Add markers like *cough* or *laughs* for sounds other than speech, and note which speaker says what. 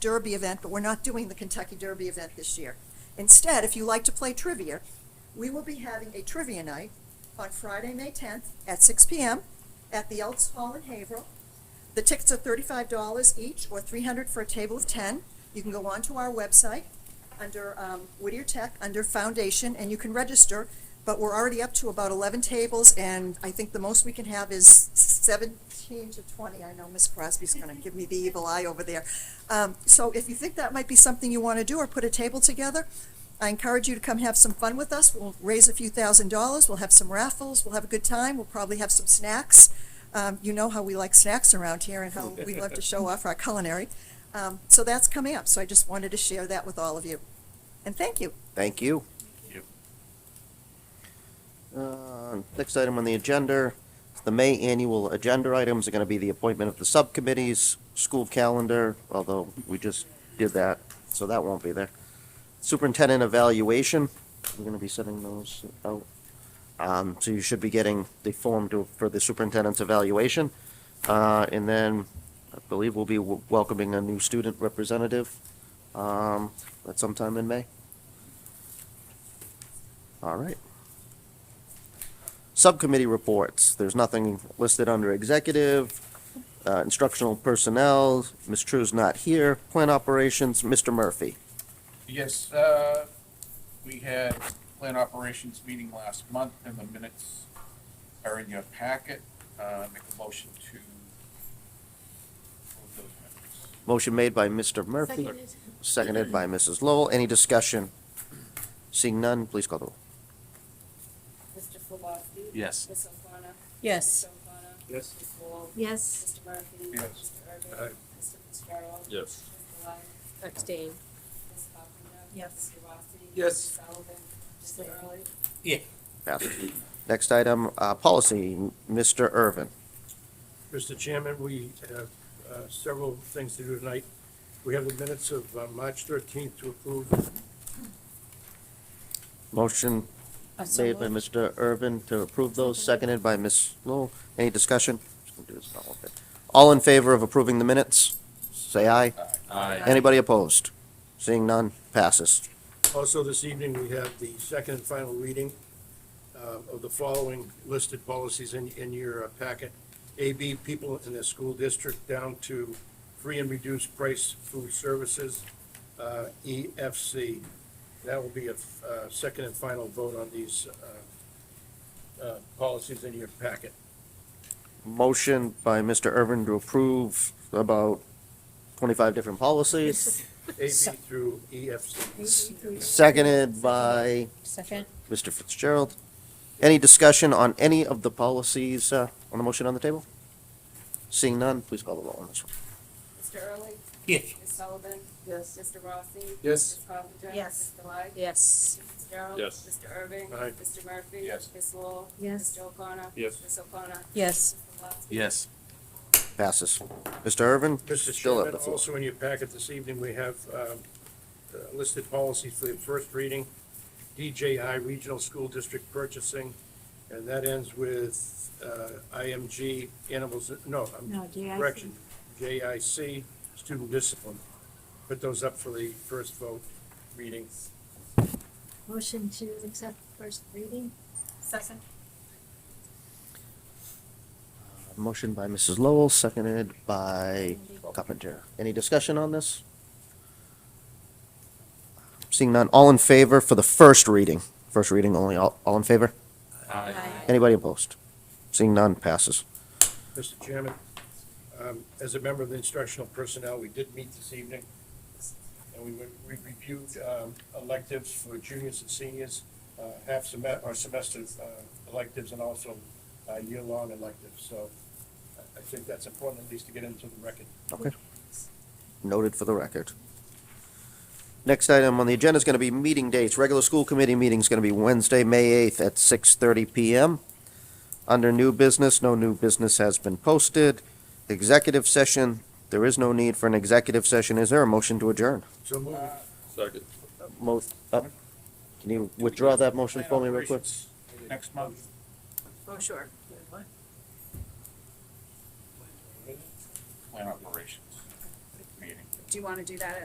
Speaker 1: Derby event, but we're not doing the Kentucky Derby event this year. Instead, if you like to play trivia, we will be having a trivia night on Friday, May 10th at 6 PM at the Elks Hall in Haverhill. The tickets are $35 each or 300 for a table of 10. You can go onto our website under um, Whittier Tech, under Foundation, and you can register. But we're already up to about 11 tables, and I think the most we can have is 17 to 20. I know Miss Crosby's going to give me the evil eye over there. Um, So if you think that might be something you want to do or put a table together, I encourage you to come have some fun with us. We'll raise a few thousand dollars, we'll have some raffles, we'll have a good time, we'll probably have some snacks. Um, you know how we like snacks around here and how we love to show off our culinary. Um, so that's coming up, so I just wanted to share that with all of you. And thank you.
Speaker 2: Thank you.
Speaker 3: Yep.
Speaker 2: Uh, Next item on the agenda, the May annual agenda items are going to be the appointment of the subcommittees, school calendar, although we just did that, so that won't be there. Superintendent evaluation, we're going to be sending those out. Um, So you should be getting the form to, for the superintendent's evaluation. Uh, And then I believe we'll be w- welcoming a new student representative um, at sometime in May. All right. Subcommittee reports, there's nothing listed under executive, uh, instructional personnel, Ms. True's not here, plant operations, Mr. Murphy.
Speaker 3: Yes, uh, we had plant operations meeting last month, and the minutes are in your packet. Uh, Make a motion to approve those minutes.
Speaker 2: Motion made by Mr. Murphy,
Speaker 4: Seconded.
Speaker 2: seconded by Mrs. Lowell, any discussion? Seeing none, please call the roll.
Speaker 5: Mr. Flubowski?
Speaker 3: Yes.
Speaker 5: Ms. O'Connor?
Speaker 4: Yes.
Speaker 5: Mr. O'Connor?
Speaker 6: Yes.
Speaker 5: Ms. Lowell?
Speaker 4: Yes.
Speaker 5: Mr. Murphy?
Speaker 3: Yes.
Speaker 5: Mr.
Speaker 6: Aye.
Speaker 5: Irvin? Mr. Fitzgerald?
Speaker 6: Yes.
Speaker 5: Mr. Lyon?
Speaker 4: Abstain.
Speaker 5: Ms. Buckingham?
Speaker 4: Yes.
Speaker 5: Mr. Rossi?
Speaker 6: Yes.
Speaker 5: Mr. Sullivan? Mr. Early?
Speaker 2: Passes. Next item, uh, policy, Mr. Irvin.
Speaker 6: Mr. Chairman, we have uh, several things to do tonight. We have the minutes of uh, March 13th to approve.
Speaker 2: Motion made by Mr. Irvin to approve those, seconded by Ms. Lowell, any discussion? Just gonna do this all of it. All in favor of approving the minutes, say aye. Anybody opposed? Seeing none, passes.
Speaker 6: Also, this evening, we have the second and final reading uh, of the following listed policies in, in your uh, packet. AB, people in the school district down to free and reduced price food services, uh, EFC. That will be a uh, second and final vote on these uh, uh, policies in your packet.
Speaker 2: Motion by Mr. Irvin to approve about twenty-five different
Speaker 4: *laughs*
Speaker 2: policies,
Speaker 6: AB through E, EFC.
Speaker 2: seconded by
Speaker 4: Second.
Speaker 2: Mr. Fitzgerald. Any discussion on any of the policies, uh, on the motion on the table? Seeing none, please call the roll on this one.
Speaker 5: Mr. Early?
Speaker 6: Yes.
Speaker 5: Ms. Sullivan? Yes. Mr. Rossi?
Speaker 6: Yes.
Speaker 5: Ms. Buckingham?
Speaker 4: Yes.
Speaker 5: Mr. Lyon?
Speaker 4: Yes.
Speaker 5: Mr. Fitzgerald?
Speaker 6: Yes.
Speaker 5: Mr. Irvin?
Speaker 6: Aye.
Speaker 5: Mr. Murphy?
Speaker 3: Yes.
Speaker 5: Ms. Lowell?
Speaker 4: Yes.
Speaker 5: Mr. O'Connor?
Speaker 6: Yes.
Speaker 5: Ms. O'Connor?
Speaker 4: Yes.
Speaker 5: Mr. Flubowski?
Speaker 3: Yes.
Speaker 2: Passes. Mr. Irvin? still
Speaker 6: Mr.
Speaker 2: have
Speaker 6: Chairman,
Speaker 2: the floor.
Speaker 6: also in your packet this evening, we have um, uh, listed policies for the first reading. DJI Regional School District Purchasing, and that ends with uh, IMG Animals, no, I'm-
Speaker 4: No, JIC.
Speaker 6: correction, JIC Student Discipline. Put those up for the first vote reading.
Speaker 4: Motion to accept first reading? Second.
Speaker 2: Motion by Mrs. Lowell, seconded by Carpenter. Any discussion on this? Seeing none, all in favor for the first reading? First reading only, all, all in favor? Anybody opposed? Seeing none, passes.
Speaker 6: Mr. Chairman, um, as a member of the instructional personnel, we did meet this evening, and we went- we reviewed um, electives for juniors and seniors, uh, half semester, or semester uh, electives, and also uh, year-long electives. So I- I think that's important, at least to get into the record.
Speaker 2: Okay. Noted for the record. Next item on the agenda is going to be meeting dates. Regular school committee meeting is going to be Wednesday, May 8th at 6:30 PM. Under new business, no new business has been posted. Executive session, there is no need for an executive session. Is there a motion to adjourn?
Speaker 6: So move.
Speaker 7: Second.
Speaker 2: Mo- uh, Can you withdraw that motion for me real quick?
Speaker 3: Next month.
Speaker 5: Oh, sure.
Speaker 3: Plant operations meeting.
Speaker 5: Do you want to do that